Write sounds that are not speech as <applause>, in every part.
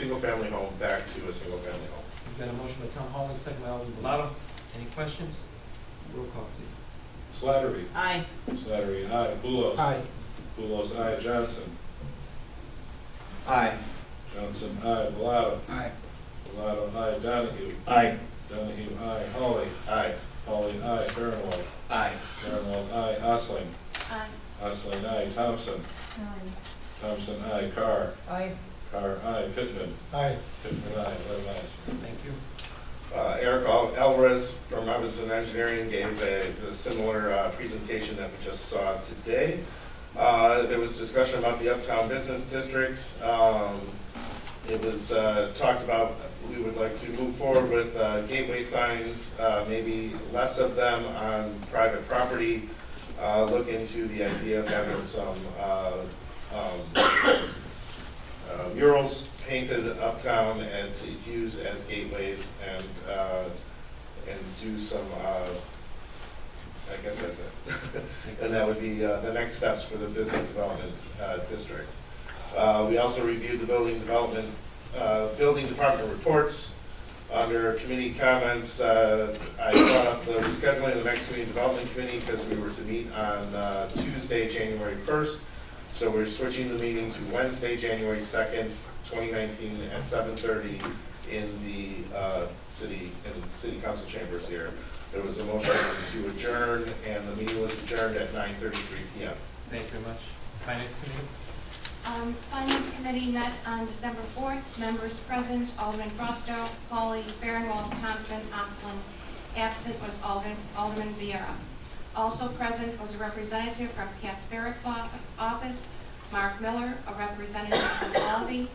single-family home back to a single-family home. We've got a motion by Tom Holland, second by Alderman Bellato. Any questions? Roll call, please. Slattery, Aye. Slattery, aye. Pulos. Pulos, aye. Johnson. Aye. Johnson, aye. Bellato. Aye. Bellato, aye. Donahue. Aye. Donahue, aye. Holly. Aye. Holly, aye. Farinwald. Aye. Farinwald, aye. Osling. Aye. Osling, aye. Thompson. Thompson, aye. Carr. Aye. Carr, aye. Pittman. Aye. Pittman, aye. Eleven ayes. Thank you. Uh, Eric Al- Alvarez from Robinson Engineering gave a a similar uh, presentation that we just saw today. Uh, There was discussion about the Uptown Business District. Um, It was uh, talked about, we would like to move forward with uh, gateway signs, uh, maybe less of them on private property. Uh, Look into the idea of having some uh, um, uh, murals painted uptown and to use as gateways and, uh, and do some, uh, I guess that's it. <laughs> And that would be uh, the next steps for the business development uh, district. Uh, We also reviewed the building development, uh, building department reports. Under committee comments, uh, I brought up the rescheduling of the next community development committee because we were to meet on uh, Tuesday, January 1st. So we're switching the meeting to Wednesday, January 2nd, 2019, at 7:30 in the uh, city, in the city council chambers here. There was a motion to adjourn, and the meeting was adjourned at 9:33 PM. Thank you very much. Finance Committee? Um, Finance Committee met on December 4th, members present, Alderman Frostow, Pauly, Farinwald, Thompson, Oslin. Absent was Alderman, Alderman Viera. Also present was a representative from Casperic's off- office, Mark Miller, a representative from Aldi,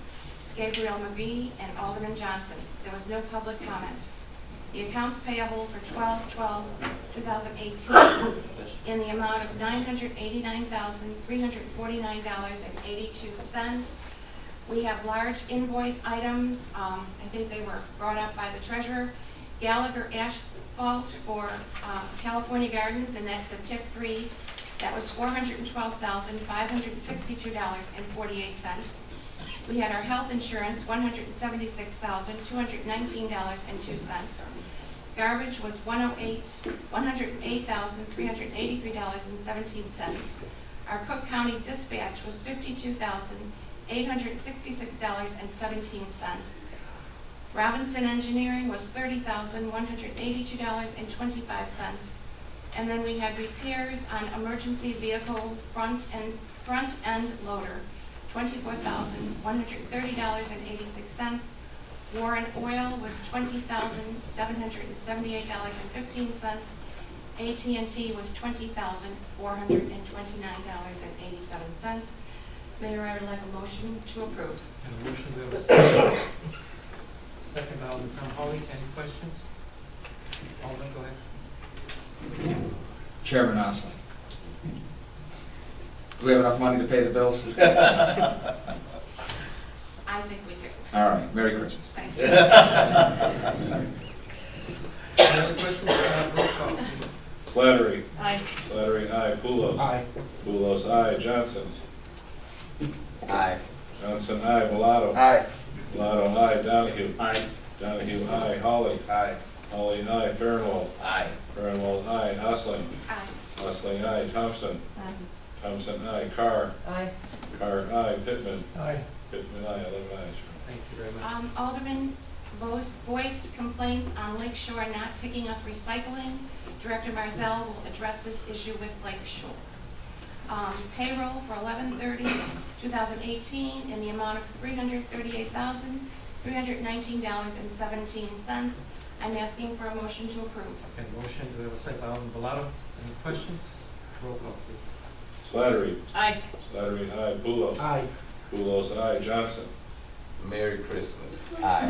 Gabriel McGee, and Alderman Johnson. There was no public comment. The accounts payable for 12/12/2018 in the amount of $989,349.82. We have large invoice items, um, I think they were brought up by the treasurer. Gallagher Asphalt for uh, California Gardens, and that's the tip three, that was $412,562.48. We had our health insurance, $176,219.02. Garbage was 108, $108,383.17. Our Cook County dispatch was $52,866.17. Robinson Engineering was $30,182.25. And then we had repairs on emergency vehicle front and, front end loader, twenty-four thousand, one hundred thirty dollars and eighty-six cents. Warren Oil was twenty thousand, seven hundred and seventy-eight dollars and fifteen cents. AT&T was twenty thousand, four hundred and twenty-nine dollars and eighty-seven cents. Mayor, I would like a motion to approve. And a motion, we have a second. Second by Alderman Tom Holly. Any questions? Alderman, go ahead. Chairman Osling. Do we have enough money to pay the <laughs> bills? I think we do. All right, Merry <laughs> Christmas. Thank you. Any other questions? Uh, Roll call, please. Slattery, Aye. Slattery, aye. Pulos. Pulos, aye. Johnson. Aye. Johnson, aye. Bellato. Aye. Bellato, aye. Donahue. Aye. Donahue, aye. Holly. Aye. Holly, aye. Farinwald. Aye. Farinwald, aye. Osling. Aye. Osling, aye. Thompson. Aye. Thompson, aye. Carr. Aye. Carr, aye. Pittman. Aye. Pittman, aye. Eleven ayes. Thank you very much. Um, Alderman vo- voiced complaints on Lake Shore not picking up recycling. Director Marzell will address this issue with Lake Shore. Um, payroll for 2018 in the amount of three hundred thirty-eight thousand, three hundred nineteen dollars and seventeen cents. I'm asking for a motion to approve. Okay, motion, we have a second by Alderman Bellato. Any questions? Roll call, please. Slattery, Aye. Slattery, aye. Pulos. Aye. Pulos, aye. Johnson. Merry Christmas. Aye.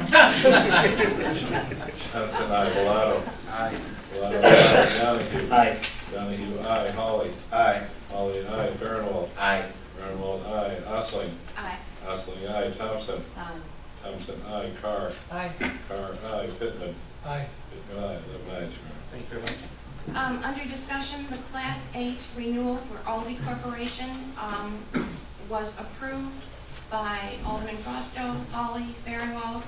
Johnson, aye. Bellato. <laughs> <laughs> Aye. Bellato, aye. Donahue. Aye. Donahue, aye. Holly. Aye. Holly, aye. Farinwald. Aye. Farinwald, aye. Osling. Aye. Osling, aye. Thompson. Aye. Thompson, aye. Carr. Aye. Carr, aye. Pittman. Aye. Pittman, aye. Eleven ayes, Your Honor. Thank you very much. Um, under discussion, the Class 8 renewal for Aldi Corporation, um, was approved. by Alderman Fausto, Holly, Farinwald,